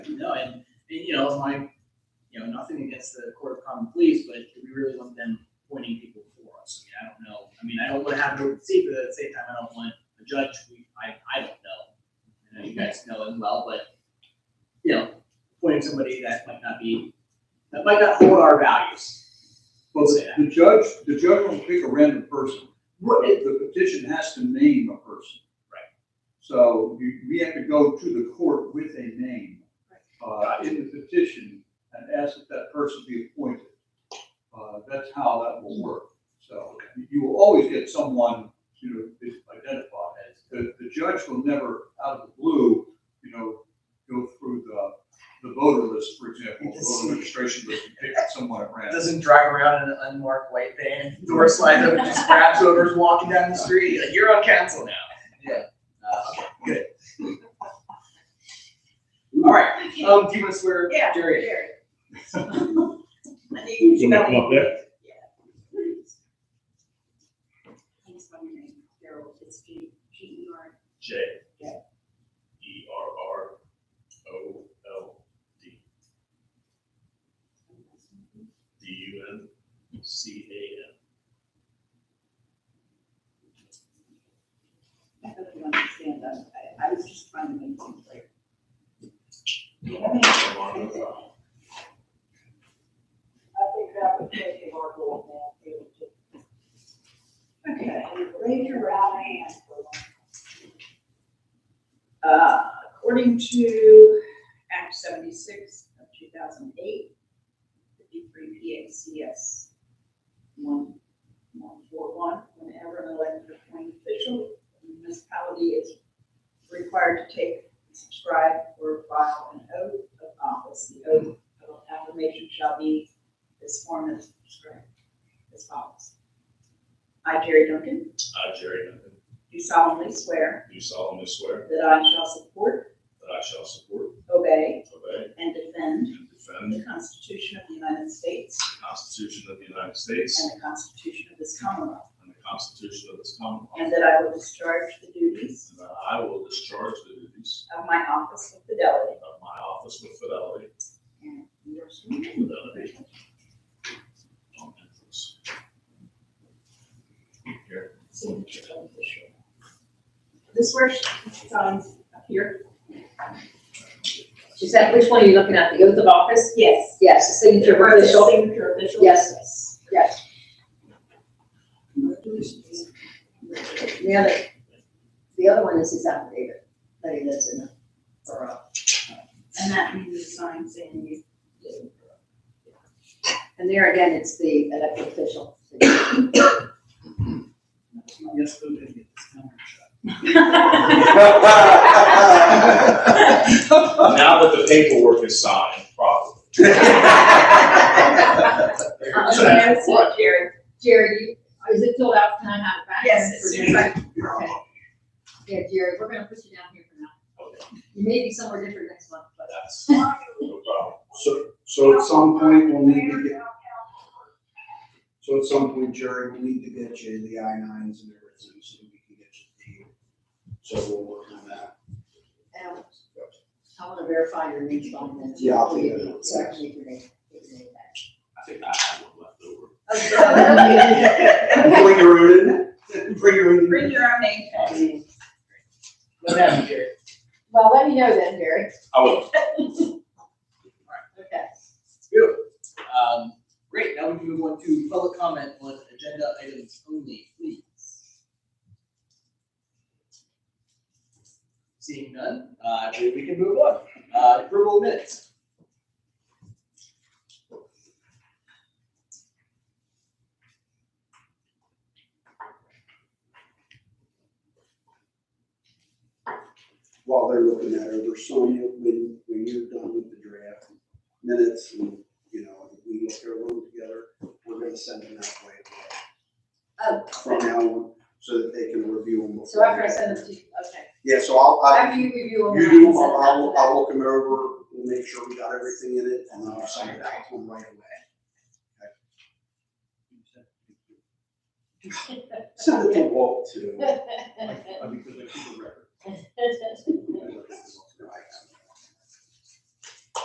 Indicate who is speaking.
Speaker 1: no, and, and, you know, it's my, you know, nothing against the Court of Common Pleas, but do we really want them appointing people for us? I mean, I don't know, I mean, I don't wanna have an open seat, but at the same time, I don't want a judge, we, I, I don't know. I know you guys know as well, but, you know, appointing somebody that might not be, that might not hold our values, we'll say that.
Speaker 2: The judge, the judge will pick a random person.
Speaker 1: Right, it-
Speaker 2: The petition has to name a person.
Speaker 1: Right.
Speaker 2: So you, we have to go to the court with a name uh, in the petition and ask that that person be appointed. Uh, That's how that will work. So you- you will always get someone, you know, is identified as, the, the judge will never, out of the blue, you know, go through the, the voter list, for example, voter registration list, and pick someone at
Speaker 1: It
Speaker 2: random.
Speaker 1: doesn't drive around in an unmarked white van, door slides open, just grabs whoever's walking down the street, like, you're on council now. Yeah. Uh, okay, good. All right, um, do you want to swear
Speaker 3: Yeah.
Speaker 1: Jerry?
Speaker 3: I think-
Speaker 4: You wanna come up there?
Speaker 3: Yeah. Thanks for your name, Gerald, it's G, G E R,
Speaker 4: J. E R R O L D D U N C A N.
Speaker 3: I hope you understand, I, I was just trying to make things clear. Okay, raise your right hand. Uh, according to Act seventy-six of two thousand eight, fifty-three P A C S one, one, four, one, whenever an elected or appointed official, of the municipality is required to take, subscribe, or file an oath of office. The oath of affirmation shall be as form as described as follows. I, Jerry Duncan,
Speaker 4: I, Jerry Duncan,
Speaker 3: do solemnly swear
Speaker 4: do solemnly swear
Speaker 3: that I shall support,
Speaker 4: that I shall support,
Speaker 3: obey,
Speaker 4: obey,
Speaker 3: and defend
Speaker 4: and defend
Speaker 3: the Constitution of the United States
Speaker 4: the Constitution of the United States
Speaker 3: and the Constitution of this Commonwealth,
Speaker 4: and the Constitution of this Commonwealth.
Speaker 3: and that I will discharge the duties
Speaker 4: And that I will discharge the duties
Speaker 3: of my office with fidelity.
Speaker 4: of my office with fidelity.
Speaker 3: And you are sworn.
Speaker 4: Fidelity. On entrance. Here.
Speaker 3: signature of the show. This where she signs up here?
Speaker 5: Is that which one are you looking at, the oath of office?
Speaker 3: Yes.
Speaker 5: Yes, the signature
Speaker 3: Where the
Speaker 5: official,
Speaker 3: Signature official?
Speaker 5: Yes. yes. The other, the other one is his affidavit, that he lives in the borough.
Speaker 3: And that means the sign saying you.
Speaker 5: And there again, it's the elected official.
Speaker 1: Yes, we're gonna get this camera shot.
Speaker 4: Now that the paperwork is signed properly.
Speaker 5: So that's what, Jerry, you, is it filled out, can I have it back?
Speaker 3: Yes, it's
Speaker 5: For
Speaker 3: in
Speaker 5: Jerry?
Speaker 3: fact-
Speaker 5: Okay. Yeah, Jerry, we're gonna put you down here for now. You may be somewhere different next month, but.
Speaker 4: That's no problem.
Speaker 6: So, so at some point, we'll need to get, so at some point, Jerry, we'll need to get you the I nines and everything, so we can get you the, so we'll work on that.
Speaker 5: Um, I wanna verify your name's on this.
Speaker 6: Yeah, I'll
Speaker 5: Before
Speaker 6: do
Speaker 5: you
Speaker 6: that.
Speaker 5: leave, you have to leave your name- leave your name back.
Speaker 4: I think I have one left over.
Speaker 6: Bring your own, in. bring your own.
Speaker 3: Bring your own name tag.
Speaker 1: What happened, Jerry?
Speaker 5: Well, let me know then, Jerry.
Speaker 4: I will.
Speaker 5: Okay.
Speaker 1: Beautiful. Um, great, now we can move on to public comment on agenda items only, please. Seeing none, uh, I believe we can move on. Uh, approval of minutes.
Speaker 6: While they're looking at it, over Sonia, when, when you're done with the draft minutes and, you know, we look at them together, we're gonna send them that way.
Speaker 5: Oh.
Speaker 6: From now on, so that they can review them.
Speaker 5: So after I send them to you, okay.
Speaker 6: Yeah, so I'll, I,
Speaker 5: After you review them.
Speaker 6: You
Speaker 5: then I
Speaker 6: do,
Speaker 5: can send
Speaker 6: I'll,
Speaker 5: them
Speaker 6: I'll,
Speaker 5: after
Speaker 6: I'll look them over, we'll make sure we got everything in it, and I'll send it out to them right away. Send it to Walt too.
Speaker 5: that.
Speaker 6: I- I- Because I keep a record. I